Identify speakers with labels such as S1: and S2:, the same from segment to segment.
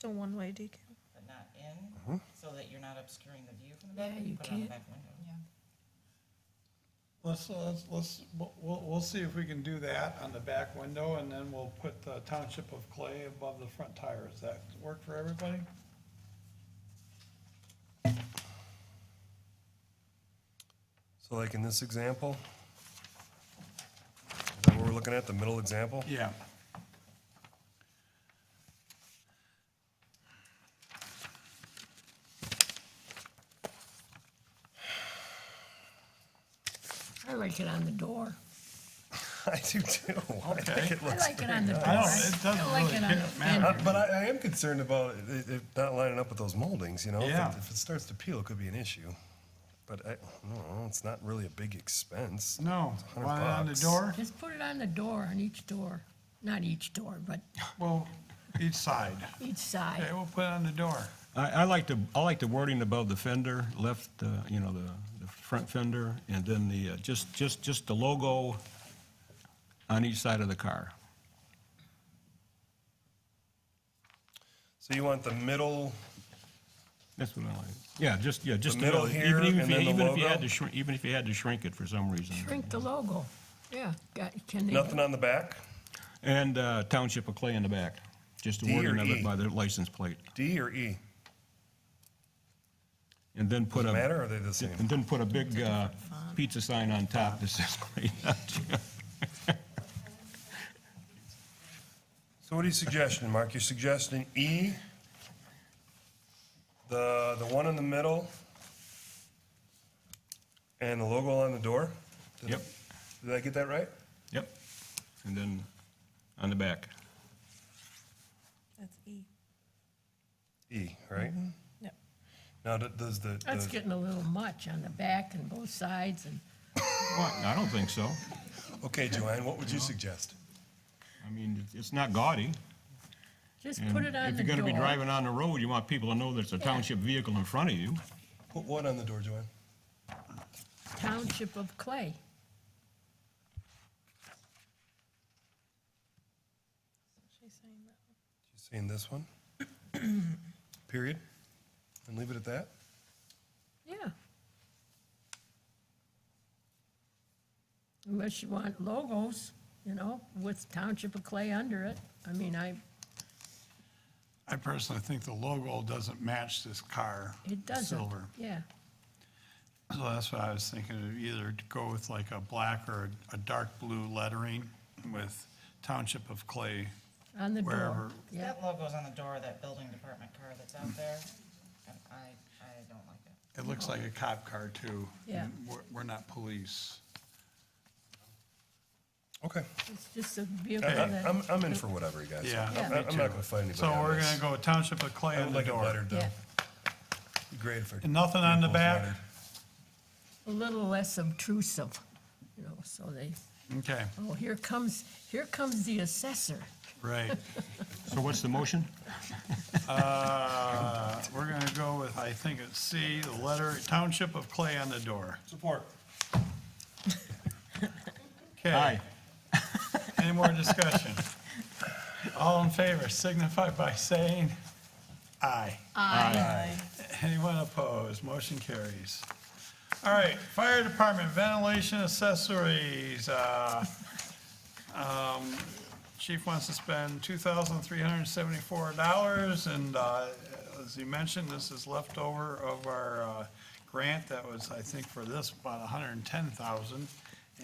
S1: So one-way decal.
S2: but not in, so that you're not obscuring the view from the back,
S3: Yeah,
S2: but you
S3: you
S2: put it on the
S3: can't.
S2: back window.
S4: Let's, let's, let's, we'll- we'll, we'll see if we can do that on the back window, and then we'll put the township of clay above the front tire. Does that work for everybody?
S5: So like in this example, is that what we're looking at, the middle example?
S4: Yeah.
S3: I like it on the door.
S5: I do too. I think it
S3: I
S5: looks
S3: like it on the door.
S4: I don't, it
S3: I
S4: doesn't
S3: don't like
S4: really
S3: it on the
S4: ca- matter.
S3: fender.
S5: But I, I am concerned about it, it not lining up with those moldings, you know? If it-
S4: Yeah.
S5: If it starts to peel, it could be an issue. But I, no, it's not really a big expense.
S4: No,
S5: a hundred
S4: want it on the
S5: bucks.
S4: door?
S3: Just put it on the door, on each door, not each door, but
S4: Well, each side.
S3: each side.
S4: Okay, we'll put it on the door.
S6: I, I like the, I like the wording above the fender, left, uh, you know, the, the front fender, and then the, uh, just, just, just the logo on each side of the car.
S5: So you want the middle,
S6: That's what I like. Yeah, just, yeah, just.
S5: The middle
S6: even-
S5: here
S6: even if
S5: and
S6: you-
S5: then the
S6: even if you had
S5: logo?
S6: to shrink- Even if you had to shrink it for some reason.
S3: Shrink the logo. Yeah, got, can they?
S5: nothing on the back?
S6: And uh, Township of Clay in the back, just the
S5: D or
S6: wording of
S5: E?
S6: it by the license plate.
S5: D or E?
S6: And then put a.
S5: Matter, or are they the same?
S6: And then put a big uh, pizza sign on top that says Clay Township.
S5: So what are you suggesting, Mark? You're suggesting E, the, the one in the middle, and the logo on the door? Did-
S6: Yep.
S5: Did I get that right?
S6: Yep. And then on the back.
S1: That's E.
S5: E, right?
S1: Yep.
S5: Now, th- does the,
S3: That's
S5: the-
S3: getting a little much on the back and both sides and
S6: What? I don't think so.
S5: okay, Joanne, what
S4: Uh-huh.
S5: would you suggest?
S6: I mean, it- it's not gaudy.
S3: just
S6: and
S4: Mm.
S3: put it on the door.
S6: If you're gonna be driving on the road, you want people to know there's a township vehicle in front of you.
S5: Put what on the door, Joanne?
S3: Township of Clay.
S1: She's saying that.
S5: She's saying this one? Period? And leave it at that?
S3: Yeah. Unless you want logos, you know, with Township of Clay under it. I mean, I,
S4: I personally think the logo doesn't match this car.
S3: it doesn't.
S4: Silver.
S3: Yeah,
S4: So that's what I was thinking, of either to go with like a black or a dark blue lettering with Township of Clay.
S3: on the door.
S4: Wherever.
S3: Yeah,
S2: That logo's on the door of that building department car that's out there, and I, I don't like that.
S4: It looks like a cop car too.
S3: Yeah.
S4: And We're, we're not police.
S5: Okay.
S3: it's just a vehicle
S5: I- I-
S3: that,
S5: I'm, I'm in for whatever, you guys.
S4: Yeah.
S3: Yeah.
S5: I'm I'm not gonna fight anybody
S4: So
S5: on
S4: we're
S5: this.
S4: gonna go Township of Clay
S5: I
S4: on
S5: would
S4: the
S5: like it
S4: door.
S5: lettered, though.
S3: yeah,
S5: Be Great if.
S4: And nothing on the back?
S3: a little less obtrusive, you know, so they,
S4: Okay,
S3: oh, here comes, here comes the assessor.
S4: right.
S6: So what's the motion?
S4: Uh, We're gonna go with, I think it's C, the letter Township of Clay on the door.
S5: Support.
S4: Okay,
S6: Aye.
S4: any more discussion? All in favor signify by saying aye.
S6: Aye.
S4: Anyone opposed? Motion carries. All right, fire department ventilation accessories. uh, um, Chief wants to spend two thousand three hundred and seventy-four dollars, and uh, as he mentioned, this is leftover of our uh, grant that was, I think, for this, about $110,000,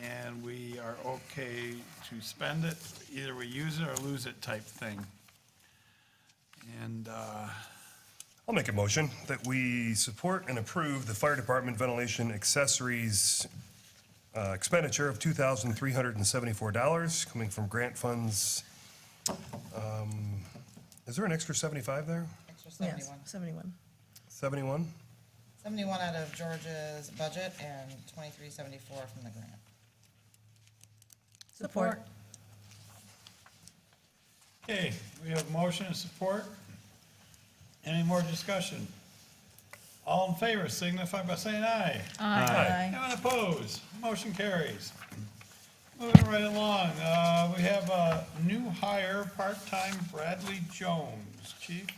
S4: And we are okay to spend it, either we use it or lose it type thing. And, uh,
S5: I'll make a motion that we support and approve the fire department ventilation accessories uh, expenditure of two thousand three hundred and seventy-four dollars coming from grant funds. Um, Is there an extra seventy-five there?
S2: Extra
S1: Yes,
S2: seventy-one.
S1: seventy-one.
S5: Seventy-one?
S2: Seventy-one out of George's budget and twenty-three seventy-four from the grant.
S1: Support.
S4: Okay, we have motion and support. Any more discussion? All in favor signify by saying aye.
S5: Aye.
S4: Anyone opposed? Motion carries. Moving right along, uh, we have a new hire, part-time Bradley Jones. Chief?